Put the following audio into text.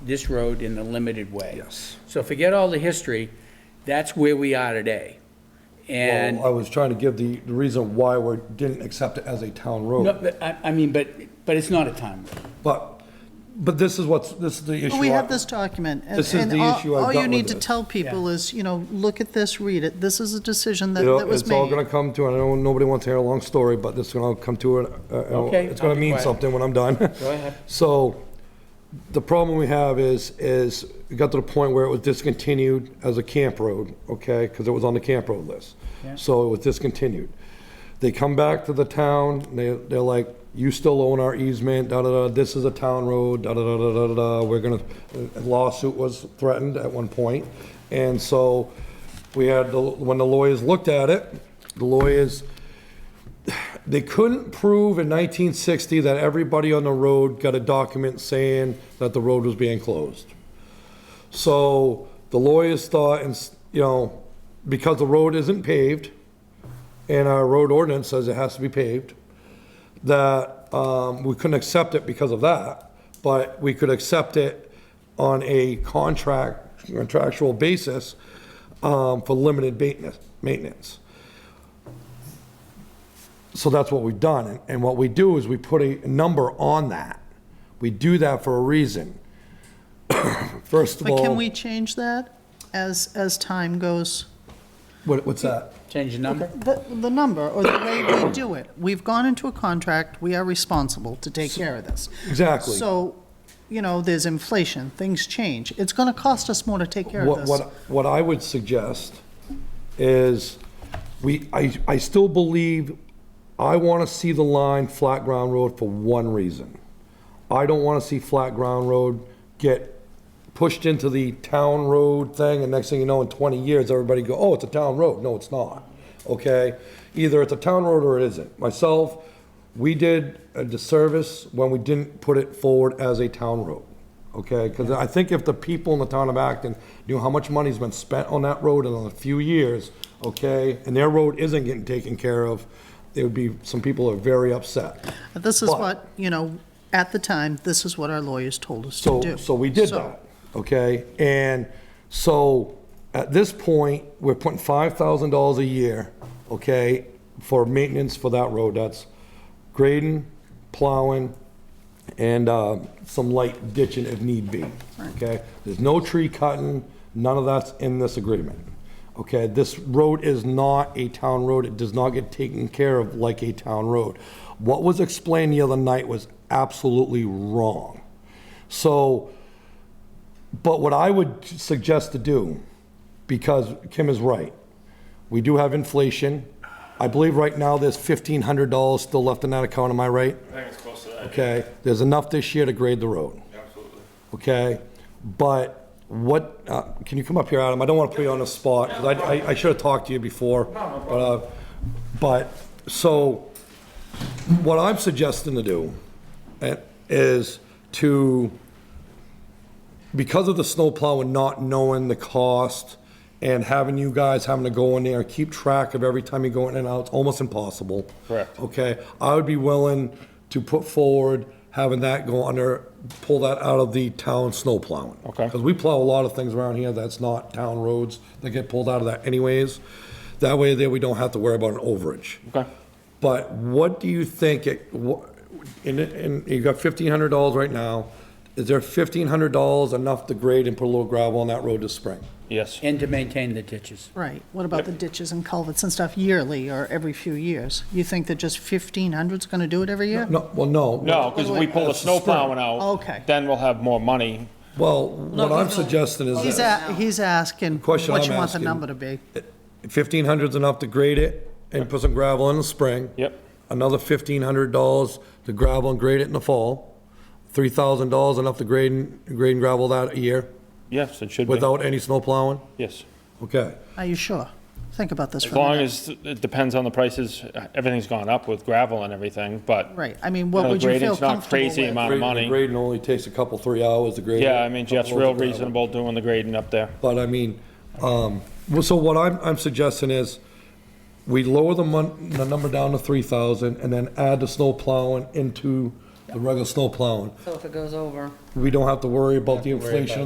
this road in a limited way. Yes. So forget all the history, that's where we are today. And, Well, I was trying to give the, the reason why we didn't accept it as a town no, road. but I, I mean, but, but it's not a time. But, but this is what's, this is the issue. We have I- this document. and- This is and the all- issue I've All got you with need to this. tell people is, you know, look at this, read it. This is a decision that You know, that was it's all gonna made. come to, I know nobody wants to hear a long story, but this is gonna come to, an- uh, uh, Okay, it's gonna I'll be mean quiet. something when I'm done. Go ahead. So, the problem we have is, is it got to the point where it was discontinued as a camp road, okay? Because it was on the camp road list. So it was discontinued. They come back to the town, and they, they're like, you still own our easement, da-da-da, this is a town road, da-da-da-da-da-da, we're gonna, a lawsuit was threatened at one point. And so we had, the when the lawyers looked at it, the lawyers, they couldn't prove in 1960 that everybody on the road got a document saying that the road was being closed. So the lawyers thought, and, s- you know, because the road isn't paved, and our road ordinance says it has to be paved, that um, we couldn't accept it because of that, but we could accept it on a contract, contractual basis um, for limited maintenance- maintenance. So that's what we've done. And- And what we do is we put a number on that. We do that for a reason. First of all. But can we change that as, as time goes? what- What's that? Change the number? The, the number or the way we do it. We've gone into a contract, we are responsible to take care of this. Exactly. So, you know, there's inflation, things change. It's going to cost us more to take care of What, this. what, what I would suggest is, we, I, I still believe, I want to see the line flat ground road for one reason. I don't want to see flat ground road get pushed into the town road thing, and next thing you know, in 20 years, everybody go, oh, it's a town road. No, it's not, okay? Either it's a town road or it isn't. Myself, we did a disservice when we didn't put it forward as a town road, okay? Because I think if the people in the town of Acton knew how much money's been spent on that road in a few years, okay, and their road isn't getting taken care of, there would be, some people are very upset. This is But- what, you know, at the time, this is what our lawyers told us to So, do. so we did So- that, okay? And so, at this point, we're putting five thousand dollars a year, okay, for maintenance for that road, that's grading, plowing, and, uh, some light ditching if need be, okay? There's no tree cutting, none of that's in this agreement, okay? This road is not a town road, it does not get taken care of like a town road. What was explained the other night was absolutely wrong. So, but what I would suggest to do, because Kim is right, we do have inflation. I believe right now there's fifteen hundred dollars still left in that account, am I right? I think it's close to that. Okay, there's enough this year to grade the road, Absolutely. okay? But what, uh, can you come up here, Adam? I don't want to put you on the spot, because I, I- I should have talked to you before. But, uh, but, so, what I'm suggesting to do eh, is to because of the snowplow and not knowing the cost and having you guys having to go in there, keep track of every time you go in and out, it's almost impossible. Correct. Okay, I would be willing to put forward having that go under, pull that out of the town snowplowing. Okay. Because we plow a lot of things around here that's not town roads, that get pulled out of that anyways. That way there, we don't have to worry about an overage. Okay. But what do you think, it- wha- and, and you got fifteen hundred dollars right now, is there fifteen hundred dollars enough to grade and put a little gravel on that road this spring? Yes. And to maintain the ditches. Right, what about the ditches and culverts and stuff yearly or every few years? You think that just fifteen hundred's gonna do it every year? No, well, no. No, because if we pull the That's the snow plowing out. Okay. Then we'll have more money. Well, what I'm suggesting is He's, this, a- he's asking what Question you I'm want the asking- number to be. fifteen hundred's enough to grade it and put some gravel in the spring. Yep. Another fifteen hundred dollars to gravel and grade it in the fall. Three thousand dollars enough to grade and, grade and gravel that year Yes, it should be. without any snow plowing? Yes. Okay. Are you sure? Think about this As for a long minute. as, it depends on the prices. Everything's gone up with gravel and everything, but. Right, I mean, what know, would you feel grading's not comfortable crazy with? amount. Grading- money. Grading only takes a couple, three hours to grade. Yeah, I mean, Jeff's Couple real loads of gravel. reasonable doing the grading up there. But I mean, um, well, so what I'm, I'm suggesting is we lower the mon, the number down to three thousand and then add the snow plowing into the regular snow plowing. So if it goes over. We don't have to worry about the inflation